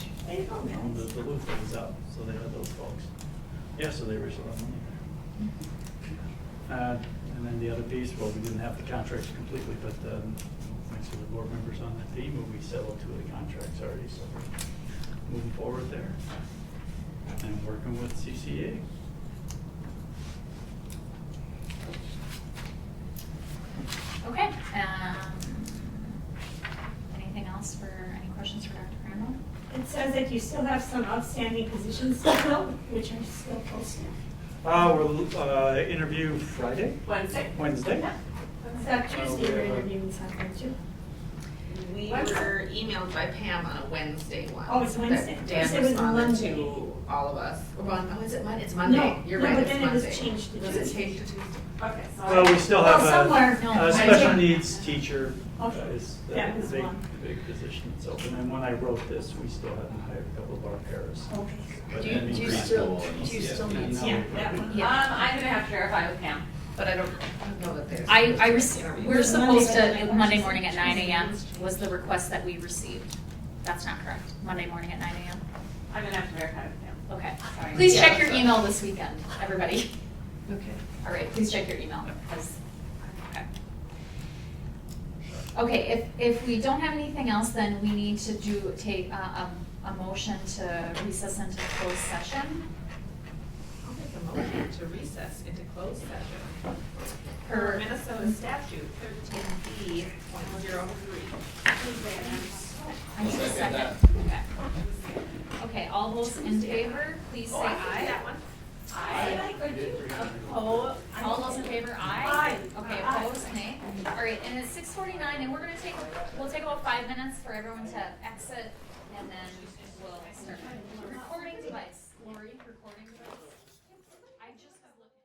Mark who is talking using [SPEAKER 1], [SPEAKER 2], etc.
[SPEAKER 1] Any
[SPEAKER 2] on Um, the,
[SPEAKER 1] comments?
[SPEAKER 2] the loop that was up, so they had those folks. Yeah, so they were still on there.
[SPEAKER 3] Uh, And then the other piece, well, we didn't have the contracts completely, but um, thanks to the board members on the team, we settled two of the contracts already, so we're moving forward there. And working with CCA.
[SPEAKER 4] Okay, um, anything else for, any questions for Dr. Crandall?
[SPEAKER 1] It says that you still have some outstanding positions to fill, which are still posted.
[SPEAKER 2] Uh, we're, uh, interview Friday,
[SPEAKER 5] Wednesday.
[SPEAKER 2] Wednesday.
[SPEAKER 1] Is that Tuesday we're interviewing someone too?
[SPEAKER 5] We
[SPEAKER 1] Wednesday.
[SPEAKER 5] were emailed by Pam on a Wednesday once.
[SPEAKER 1] Oh, it's Wednesday?
[SPEAKER 5] that
[SPEAKER 1] First it
[SPEAKER 5] Dan
[SPEAKER 1] was
[SPEAKER 5] responded
[SPEAKER 1] Monday.
[SPEAKER 5] to all of us. Or Mon- Oh, is it Monday? It's Monday.
[SPEAKER 1] No,
[SPEAKER 5] You're
[SPEAKER 1] no,
[SPEAKER 5] right,
[SPEAKER 1] but
[SPEAKER 5] it's
[SPEAKER 1] then it was
[SPEAKER 5] Monday.
[SPEAKER 1] changed to
[SPEAKER 5] Was it
[SPEAKER 1] Tuesday.
[SPEAKER 5] changed to Tuesday?
[SPEAKER 1] Okay,
[SPEAKER 2] Well, we
[SPEAKER 1] sorry.
[SPEAKER 2] still
[SPEAKER 1] Oh,
[SPEAKER 2] have
[SPEAKER 1] somewhere.
[SPEAKER 2] a,
[SPEAKER 4] No,
[SPEAKER 2] a special
[SPEAKER 4] I-
[SPEAKER 2] needs teacher
[SPEAKER 6] Oh,
[SPEAKER 2] uh,
[SPEAKER 1] Okay.
[SPEAKER 2] is the
[SPEAKER 1] That was
[SPEAKER 2] big,
[SPEAKER 1] one.
[SPEAKER 2] the big position itself. And then when I wrote this, we still hadn't hired a couple of our pairs.
[SPEAKER 1] Okay.
[SPEAKER 2] But
[SPEAKER 6] Do you,
[SPEAKER 2] then
[SPEAKER 6] do you
[SPEAKER 2] preschool
[SPEAKER 6] still,
[SPEAKER 2] and
[SPEAKER 6] do you
[SPEAKER 2] ECFD
[SPEAKER 6] still need?
[SPEAKER 2] now.
[SPEAKER 1] Yeah, that one.
[SPEAKER 4] Yeah.
[SPEAKER 5] Um, I'm gonna have to verify with Pam, but I don't I don't know that there's.
[SPEAKER 4] I, I received, we're
[SPEAKER 1] Monday, Monday,
[SPEAKER 4] supposed to, Monday
[SPEAKER 1] Monday.
[SPEAKER 4] morning at nine AM was the request that we received. That's not correct, Monday morning at nine AM,
[SPEAKER 5] I'm gonna have to verify with Pam.
[SPEAKER 4] okay.
[SPEAKER 5] Sorry.
[SPEAKER 4] Please
[SPEAKER 5] Yeah,
[SPEAKER 4] check your
[SPEAKER 5] so-
[SPEAKER 4] email this weekend, everybody.
[SPEAKER 5] Okay.
[SPEAKER 4] All right, please check your email, 'cause- okay. Okay, if, if we don't have anything else, then we need to do, take a, a, a motion to recess into closed session
[SPEAKER 5] I'll make a motion to recess into closed session. Per
[SPEAKER 1] Er,
[SPEAKER 4] per
[SPEAKER 5] Minnesota statute thirteen B point zero three.
[SPEAKER 4] I need a second. Okay. Okay, all those in favor, please say aye.
[SPEAKER 5] That one.
[SPEAKER 4] Aye.
[SPEAKER 1] Oh,
[SPEAKER 4] Oppo- all those in favor, aye? Okay, opposed, nay? All right, and it's six forty-nine, and we're gonna take, we'll take about five minutes for everyone to exit, and then we'll start.